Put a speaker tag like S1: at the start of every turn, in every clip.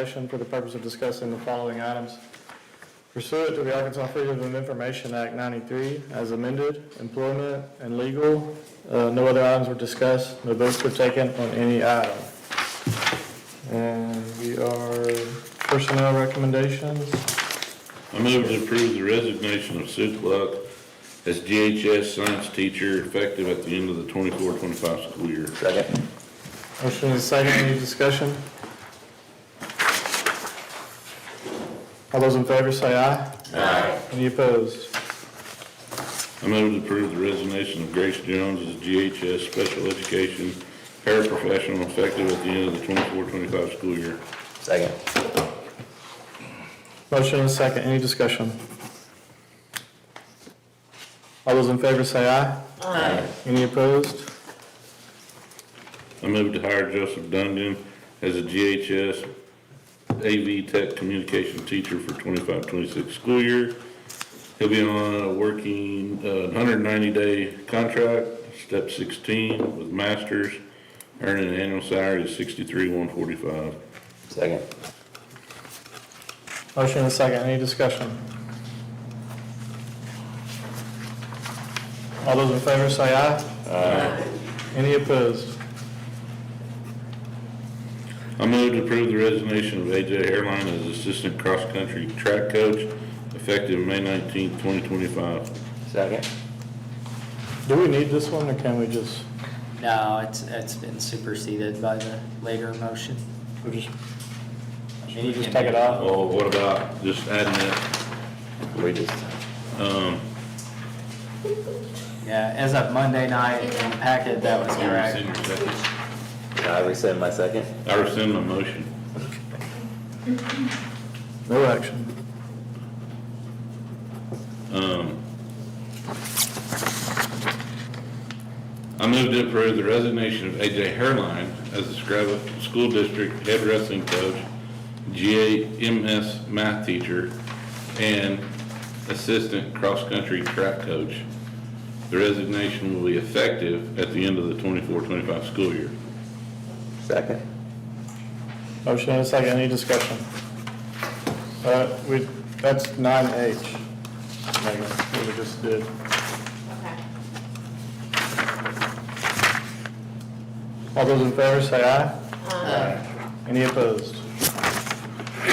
S1: session for the purpose of discussing the following items. Pursuant to the Arkansas Freedom of Information Act 93, as amended, employment and legal, uh, no other items were discussed, no votes were taken on any item. And we are personnel recommendations.
S2: I move to approve the resignation of Sue Cluck as GHS science teacher effective at the end of the 24-25 school year.
S3: Second.
S1: Motion is second, any discussion? All those in favor say aye. Aye. Any opposed?
S2: I move to approve the resignation of Grace Jones as GHS special education paraprofessional effective at the end of the 24-25 school year.
S3: Second.
S1: Motion and a second, any discussion? All those in favor say aye. Aye. Any opposed?
S2: I move to hire Joseph Dundon as a GHS AV Tech Communication Teacher for 25-26 school year. He'll be on a working, uh, hundred and ninety-day contract, step sixteen with masters, earning an annual salary of sixty-three, one forty-five.
S3: Second.
S1: Motion and a second, any discussion? All those in favor say aye. Aye. Any opposed?
S2: I move to approve the resignation of AJ Airline as Assistant Cross-Country Track Coach, effective May nineteenth, twenty twenty-five.
S3: Second.
S1: Do we need this one, or can we just,
S4: No, it's, it's been superseded by the later motion.
S1: we just, should we just take it off?
S2: Oh, what about just adding that,
S3: We just,
S2: um,
S4: Yeah, as of Monday night in the packet, that was correct.
S2: senior second?
S3: can I rescind my second?
S2: I rescind my motion.
S1: No action.
S2: Um, I move to approve the resignation of AJ Hairline as the Scrabble School District Head Wrestling Coach, GAMS Math Teacher, and Assistant Cross Country Track Coach. The resignation will be effective at the end of the 24-25 school year.
S3: Second.
S1: Motion and a second, any discussion? Uh, we, that's nine H. Megan, we just did.
S5: Okay.
S1: All those in favor say aye. Aye. Any opposed?
S2: I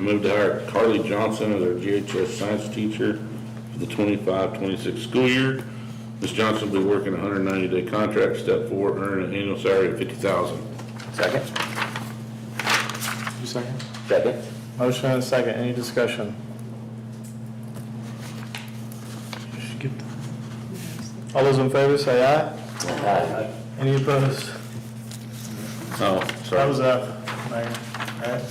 S2: move to hire Carly Johnson as our GHS science teacher for the 25-26 school year. Ms. Johnson will be working a hundred and ninety-day contract, step four, earning an annual salary of fifty thousand.
S3: Second.
S1: You second?
S3: Second.
S1: Motion and a second, any discussion? All those in favor say aye.
S3: Aye.
S1: Any opposed?
S2: Oh,
S1: That was
S2: sorry,
S1: up, Megan. All right.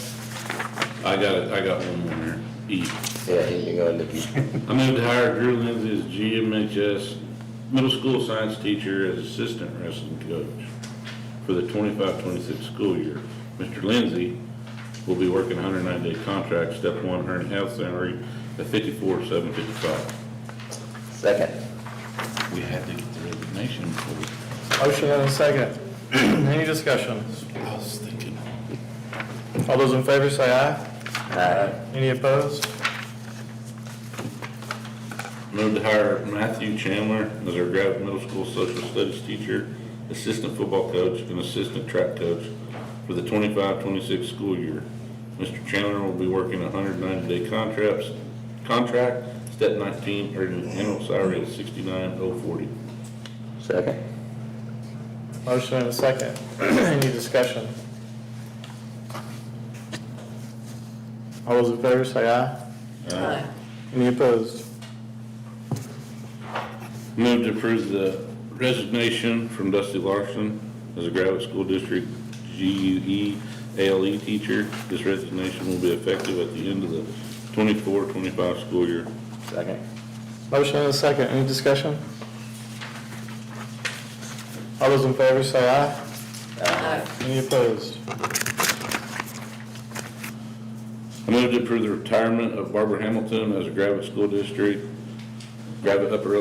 S2: I got it, I got one more here, E.
S3: Yeah, you can go into the,
S2: I move to hire Drew Lindsay as GMHS middle school science teacher as assistant wrestling coach for the 25-26 school year. Mr. Lindsay will be working a hundred and nine day contract, step one, her health salary at fifty-four, seven fifty-five.
S3: second.
S2: We had to get the resignation before.
S1: Motion and a second, any discussion?
S2: I was thinking.
S1: All those in favor say aye.
S3: Aye.
S1: Any opposed?
S2: Move to hire Matthew Chandler as our Gravette Middle School Social Studies teacher, assistant football coach, and assistant track coach for the 25-26 school year. Mr. Chandler will be working a hundred ninety-day contracts, contract, step nineteen, earning an annual salary of sixty-nine oh forty.
S3: Second.
S1: Motion and a second, any discussion? All those in favor say aye. Any opposed?
S2: Move to approve the resignation from Dusty Larson as a Gravette School District E GUE ALE teacher. This resignation will be effective at the end of the 24-25 school year.
S3: Second.
S1: Motion and a second, any discussion? All those in favor say aye. Any opposed?
S2: I move to approve the retirement of Barbara Hamilton as a Gravette School District, Gravette Upper